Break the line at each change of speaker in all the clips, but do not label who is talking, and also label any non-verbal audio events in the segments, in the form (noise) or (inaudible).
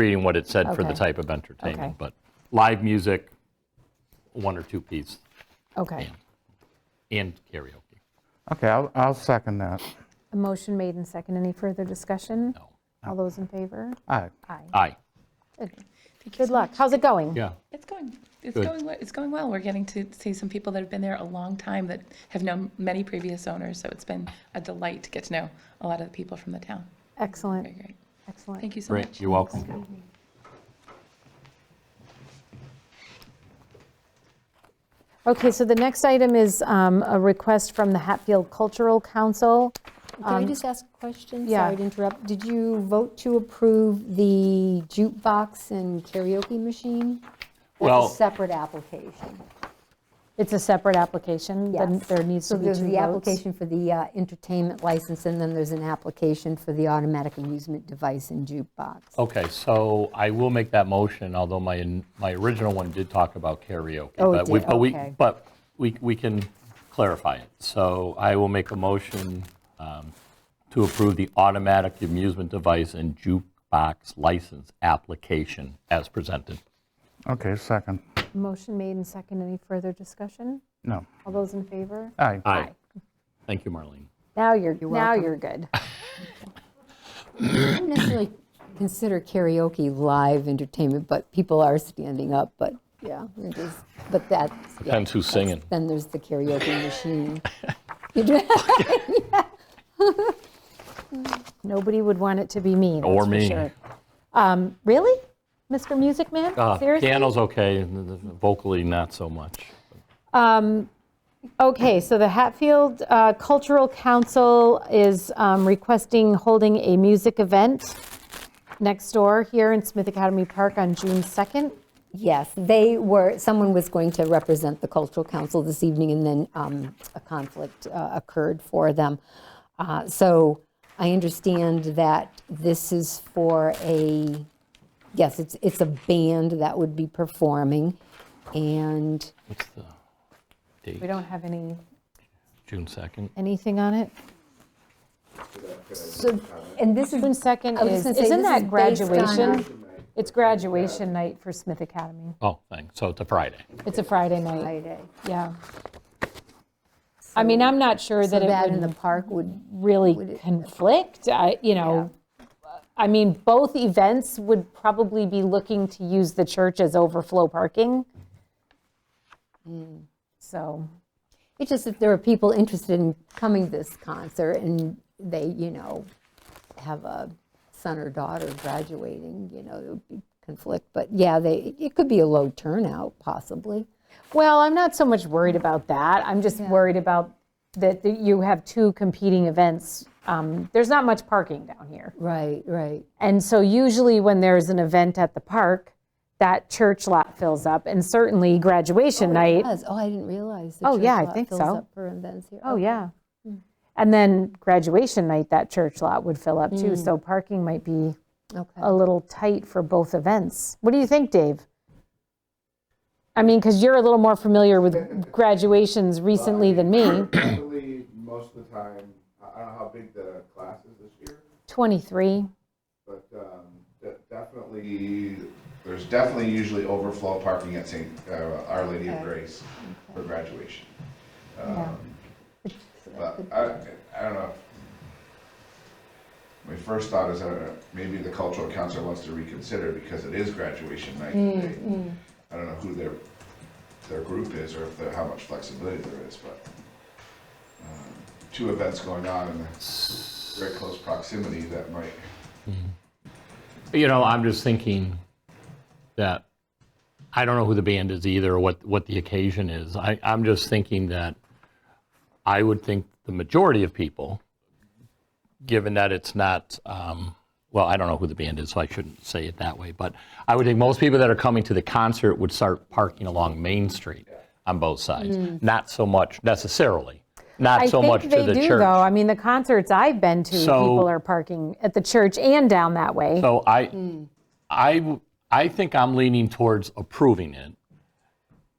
reading what it said for the
Okay.
type of entertainment,
Okay.
but live music, one or two piece,
Okay.
and karaoke.
Okay, I'll, I'll second that.
A motion made and second. Any further discussion?
No.
All those in favor?
All right.
Aye.
Aye,
Good. Good luck. How's it going?
yeah.
It's going, it's
Good.
going, we- it's going well. We're getting to see some people that have been there a long time that have known many previous owners, so it's been a delight to get to know a lot of the people from the town. Very
Excellent,
great.
excellent.
Thank you so much.
Great, you're welcome.
Okay, so the next item is um, a request from the Hatfield Cultural Council.
Can I just ask a question?
yeah.
Sorry to interrupt. Did you vote to approve the jukebox and karaoke machine?
Well-
That's a separate application.
It's a separate application, then
Yes.
there needs to be two votes.
So there's the application for the uh, entertainment license, and then there's an application for the automatic amusement device and jukebox.
Okay, so I will make that motion, although my, my original one did talk about karaoke.
Oh, it
but we-
did,
but we-
okay.
But we, we can clarify it. So I will make a motion um, to approve the automatic amusement device and jukebox license application as presented.
Okay, second.
Motion made and second. Any further discussion?
No.
All those in favor?
All right.
Aye. Thank you, Marlene.
Now you're, now
welcome.
you're good.
I wouldn't necessarily consider karaoke live entertainment, but people are standing up, but, yeah, it is, but that's. yeah,
Depends who's
that's-
singing.
Then there's the karaoke machine. (laughs) You do-
Nobody would want it to be me, that's
Or
for
me.
sure. Um, Really? Mr. Music Man?
Uh,
Seriously?
Piano's okay, and the- the vocally not so much.
Okay, so the Hatfield uh, Cultural Council is um, requesting holding a music event next door here in Smith Academy Park on June 2nd.
Yes, they were, someone was going to represent the cultural council this evening, and then um, a conflict uh, occurred for them. Uh, So I understand that this is for a, yes, it's, it's a band that would be performing, and
What's the
We
date?
don't have any,
June 2nd?
anything on it.
So, and this
June
is,
2nd
was
is,
gonna say,
isn't
this
that
is based on-
graduation? It's graduation night for Smith Academy.
Oh, thanks, so it's a Friday.
It's a Friday night,
Friday.
yeah. I mean, I'm not sure
So
that
that
it
in the
would
park would,
really conflict, I, you know. I mean, both events would probably be looking to use the church as overflow parking.
Mm.
So,
it's just if there are people interested in coming to this concert and they, you know, have a son or daughter graduating, you know, it would be conflict. But yeah, they, it could be a low turnout possibly.
well, I'm not so much worried about that. I'm just worried about that that you have two competing events. Um, There's not much parking down here.
Right, right.
And so usually when there's an event at the park, that church lot fills up and certainly graduation night.
Yes, oh, I didn't realize. the
Oh,
church
yeah, I
lot
think
fills
so.
up for events here.
Oh, yeah. And then graduation night, that church lot would fill up too. So parking might be
Okay.
a little tight for both events. What do you think, Dave? I mean, because you're a little more familiar with graduations recently than me. (clears throat)
Luckily, most of the time, I I don't know how big the class is this year,
23,
but um, de- definitely, there's definitely usually overflow parking at St., uh, Our Lady of Grace for graduation. Um,
yeah.
But I, I don't know. My first thought is, I don't know, maybe the cultural council wants to reconsider because it is graduation night. They- I don't know who their, their group is or if they're, how much flexibility there is, but um, two events going on in very close proximity that might.
You know, I'm just thinking that, I don't know who the band is either, or what, what the occasion is. I, I'm just thinking that I would think the majority of people, given that it's not, um, well, I don't know who the band is, so I shouldn't say it that way, but I would think most people that are coming to the concert would start parking along Main Street on both sides. Not so much necessarily, not so much to the church.
Mm. I think they do, though. I mean, the concerts I've been to,
So-
people are parking at the church and down that way.
So I,
Hmm.
I, w- I think I'm leaning towards approving it,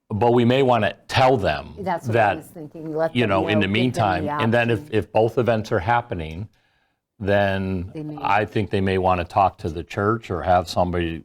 but we may want to tell them
That's what I was
that,
thinking. Let
you
them
know, in the
give them
meantime, and then
option.
if, if both events are happening, then I think they may want to talk to the church or have somebody